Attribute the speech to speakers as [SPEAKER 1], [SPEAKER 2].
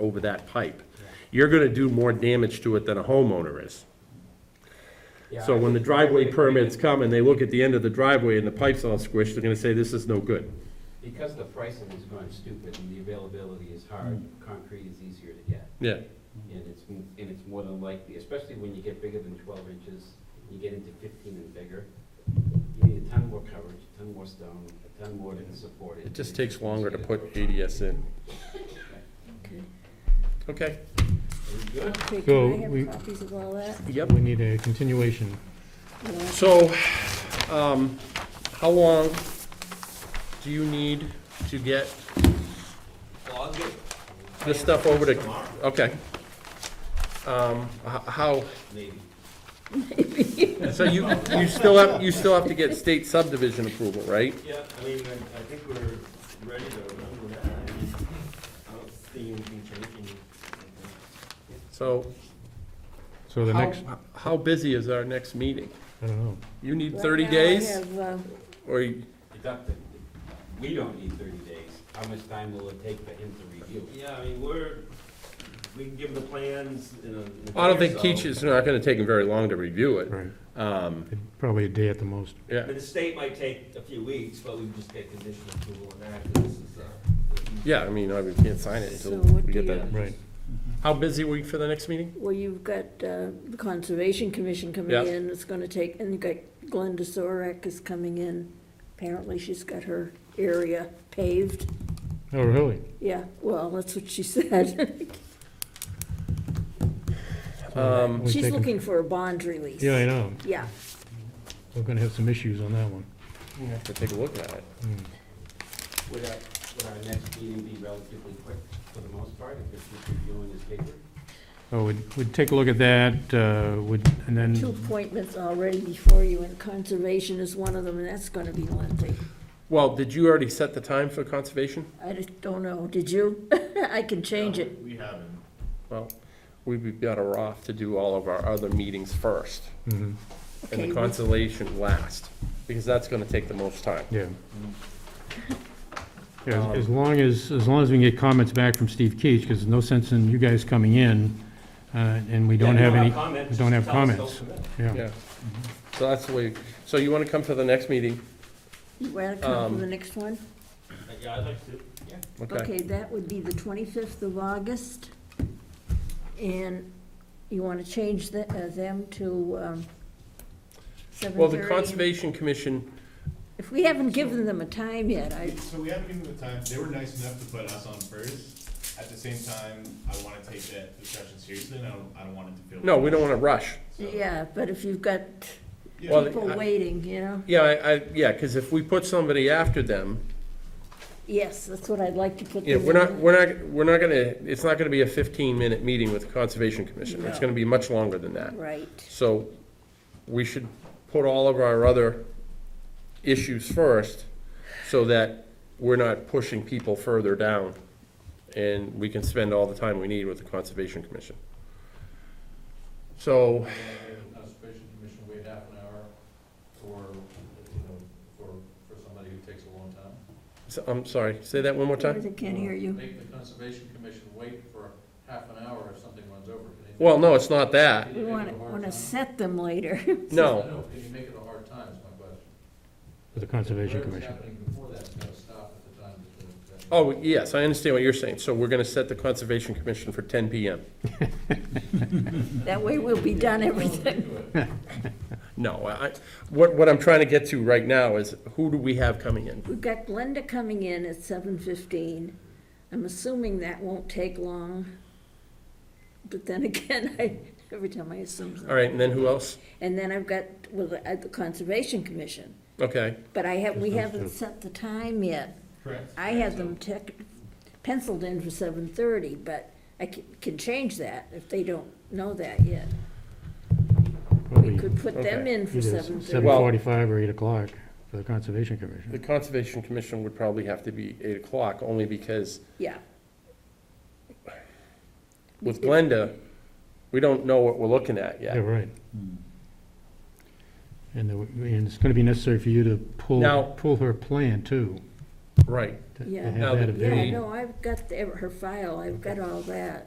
[SPEAKER 1] over that pipe. You're gonna do more damage to it than a homeowner is.
[SPEAKER 2] Yeah,
[SPEAKER 1] So
[SPEAKER 2] I
[SPEAKER 1] when the
[SPEAKER 2] think
[SPEAKER 1] driveway
[SPEAKER 2] would
[SPEAKER 1] permits come and they look at the end of the driveway and the pipe's all squished, they're gonna say, this is no good.
[SPEAKER 2] agree, Because the pricing has gone stupid and the availability is hard,
[SPEAKER 1] Mm.
[SPEAKER 2] concrete is easier to get.
[SPEAKER 1] Yeah. Mm.
[SPEAKER 2] And it's, m- and it's more than likely, especially when you get bigger than twelve inches, you get into fifteen and bigger, you need a ton more coverage, a ton more stone, a ton more to support it.
[SPEAKER 1] It just takes longer to put ADS in. Okay.
[SPEAKER 2] Are we good?
[SPEAKER 3] Okay,
[SPEAKER 4] So
[SPEAKER 3] can I
[SPEAKER 4] we-
[SPEAKER 3] have copies of all that?
[SPEAKER 1] Yep.
[SPEAKER 4] We need a continuation.
[SPEAKER 3] Yeah.
[SPEAKER 1] So, um, how long do you need to get
[SPEAKER 2] Well, I'll get
[SPEAKER 1] this stuff over to, okay. Um, h- how,
[SPEAKER 2] maybe.
[SPEAKER 1] so you, you still have, you still have to get state subdivision approval, right?
[SPEAKER 5] Yeah, I mean, I, I think we're ready to run with that. I mean, I don't see anything changing.
[SPEAKER 1] So,
[SPEAKER 4] So the
[SPEAKER 1] how,
[SPEAKER 4] next,
[SPEAKER 1] how busy is our next meeting?
[SPEAKER 4] I don't know.
[SPEAKER 1] You need
[SPEAKER 3] Right
[SPEAKER 1] thirty
[SPEAKER 3] now I
[SPEAKER 1] days,
[SPEAKER 3] have, uh,
[SPEAKER 1] or, you-
[SPEAKER 2] Deduct it. We don't need thirty days. How much time will it take for him to review? it?
[SPEAKER 5] Yeah, I mean, we're, we can give the plans in a- in a.
[SPEAKER 1] I don't
[SPEAKER 5] day or
[SPEAKER 1] think
[SPEAKER 5] so.
[SPEAKER 1] Keach is not gonna take him very long to review it.
[SPEAKER 4] Right.
[SPEAKER 1] Um,
[SPEAKER 4] Probably a day at the most.
[SPEAKER 5] I
[SPEAKER 1] yeah,
[SPEAKER 5] mean, the state might take a few weeks, but we just get conditional approval on that, 'cause this is, uh,
[SPEAKER 1] yeah, I mean, I- we can't sign it
[SPEAKER 3] So
[SPEAKER 1] until
[SPEAKER 3] what
[SPEAKER 1] we
[SPEAKER 3] do
[SPEAKER 1] get
[SPEAKER 3] you-
[SPEAKER 1] that.
[SPEAKER 4] Right.
[SPEAKER 1] How busy were you for the next meeting?
[SPEAKER 3] well, you've got uh, the Conservation Commission coming
[SPEAKER 1] Yeah.
[SPEAKER 3] in, it's gonna take, and you've got Glenda Sorek is coming in. Apparently, she's got her area paved.
[SPEAKER 4] Oh, really?
[SPEAKER 3] Yeah, well, that's what she said.
[SPEAKER 1] Um,
[SPEAKER 4] We've
[SPEAKER 3] She's
[SPEAKER 4] taken-
[SPEAKER 3] looking for a bond release.
[SPEAKER 4] Yeah, I know.
[SPEAKER 3] Yeah,
[SPEAKER 4] We're gonna have some issues on that one.
[SPEAKER 1] to take a look at it.
[SPEAKER 4] Hmm.
[SPEAKER 2] Would our, would our next meeting be relatively quick for the most part if it's just reviewing his paper?
[SPEAKER 4] Oh, we'd, we'd take a look at that, uh, would, and
[SPEAKER 3] two
[SPEAKER 4] then,
[SPEAKER 3] appointments already before you, and Conservation is one of them, and that's gonna be lengthy.
[SPEAKER 1] Well, did you already set the time for conservation?
[SPEAKER 3] I just don't know, did you? I can change it.
[SPEAKER 5] We haven't.
[SPEAKER 1] Well, we'd be better off to do all of our other meetings first,
[SPEAKER 4] Mhm,
[SPEAKER 1] and
[SPEAKER 3] Okay,
[SPEAKER 1] the
[SPEAKER 3] we-
[SPEAKER 1] conservation last, because that's gonna take the most time.
[SPEAKER 4] yeah. Yeah, as- as long as, as long as we can get comments back from Steve Keach, because there's no sense in you guys coming in, uh, and we don't have any,
[SPEAKER 5] comments,
[SPEAKER 4] we don't
[SPEAKER 5] just
[SPEAKER 4] have
[SPEAKER 5] tell us
[SPEAKER 4] comments.
[SPEAKER 5] don't submit.
[SPEAKER 4] yeah.
[SPEAKER 1] Yeah, so that's the way, so you wanna come to the next meeting?
[SPEAKER 3] You wanna come
[SPEAKER 1] Um,
[SPEAKER 3] to the next one?
[SPEAKER 5] Uh, Yeah, I'd like to,
[SPEAKER 1] Okay,
[SPEAKER 3] Okay, that would be the 25th of August. And you want to change the- uh, them to um, 7:30?
[SPEAKER 1] well, the Conservation Commission,
[SPEAKER 3] If we haven't given them a time yet, I,
[SPEAKER 6] So we haven't given them the time, they were nice enough to put us on first. At the same time, I wanna take that discussion seriously, and I don't, I don't want it to feel.
[SPEAKER 1] no, we don't wanna rush.
[SPEAKER 6] So,
[SPEAKER 3] yeah, but if you've got
[SPEAKER 6] yeah,
[SPEAKER 1] Well,
[SPEAKER 3] people
[SPEAKER 1] I-
[SPEAKER 3] waiting, you know?
[SPEAKER 1] Yeah, I, I, yeah, cause if we put somebody after them,
[SPEAKER 3] Yes, that's what I'd like to put
[SPEAKER 1] Yeah,
[SPEAKER 3] them
[SPEAKER 1] we're not,
[SPEAKER 3] in.
[SPEAKER 1] we're not, we're not gonna, it's not gonna be a fifteen-minute meeting with the Conservation Commission. It's
[SPEAKER 3] No.
[SPEAKER 1] gonna be much longer than that.
[SPEAKER 3] Right,
[SPEAKER 1] So we should put all of our other issues first so that we're not pushing people further down. And we can spend all the time we need with the Conservation Commission. So,
[SPEAKER 7] Conservation Commission wait half an hour for, you know, for, for somebody who takes a long time?
[SPEAKER 1] so- I'm sorry, say that one more
[SPEAKER 3] I
[SPEAKER 1] time?
[SPEAKER 3] can't hear you.
[SPEAKER 7] Make the Conservation Commission wait for half an hour if something runs over. Can you-
[SPEAKER 1] Well, no, it's not that.
[SPEAKER 7] Can
[SPEAKER 3] We
[SPEAKER 7] you make
[SPEAKER 3] want
[SPEAKER 7] it
[SPEAKER 3] to,
[SPEAKER 7] a hard
[SPEAKER 3] want to
[SPEAKER 7] time?
[SPEAKER 3] set them later.
[SPEAKER 7] I
[SPEAKER 1] No,
[SPEAKER 7] know, can you make it a hard time is my question.
[SPEAKER 4] For the Conservation
[SPEAKER 7] Whatever's
[SPEAKER 4] Commission.
[SPEAKER 7] happening before that's gonna stop at the time that the.
[SPEAKER 1] oh, yes, I understand what you're saying. So we're gonna set the Conservation Commission for ten PM.
[SPEAKER 3] That way we'll be done everything.
[SPEAKER 1] No, I, what, what I'm trying to get to right now is who do we have coming in?
[SPEAKER 3] We've got Glenda coming in at seven fifteen. I'm assuming that won't take long. But then again, I, every time I assume
[SPEAKER 1] All
[SPEAKER 3] something.
[SPEAKER 1] right, and then who else?
[SPEAKER 3] And then I've got, well, the- at the Conservation Commission,
[SPEAKER 1] Okay,
[SPEAKER 3] but I have, we
[SPEAKER 4] Those
[SPEAKER 3] haven't
[SPEAKER 4] two.
[SPEAKER 3] set the time yet.
[SPEAKER 6] Correct.
[SPEAKER 3] I have them tech, penciled in for seven thirty, but I can, can change that if they don't know that yet. We
[SPEAKER 4] Probably
[SPEAKER 3] could put them
[SPEAKER 1] Okay.
[SPEAKER 3] in for
[SPEAKER 4] Either
[SPEAKER 3] seven
[SPEAKER 4] seven
[SPEAKER 3] thirty.
[SPEAKER 1] Well-
[SPEAKER 4] forty-five or eight o'clock for the Conservation Commission.
[SPEAKER 1] the Conservation Commission would probably have to be eight o'clock, only because
[SPEAKER 3] Yeah,
[SPEAKER 1] with Glenda, we don't know what we're looking at
[SPEAKER 4] Yeah,
[SPEAKER 1] yet.
[SPEAKER 4] right. And, the- and it's gonna be necessary for you to pull,
[SPEAKER 1] Now-
[SPEAKER 4] pull her plan too.
[SPEAKER 1] right.
[SPEAKER 4] to- to
[SPEAKER 3] Yeah.
[SPEAKER 4] have that
[SPEAKER 1] Now,
[SPEAKER 3] Yeah,
[SPEAKER 4] available.
[SPEAKER 3] no, I've got the- her file, I've got all that.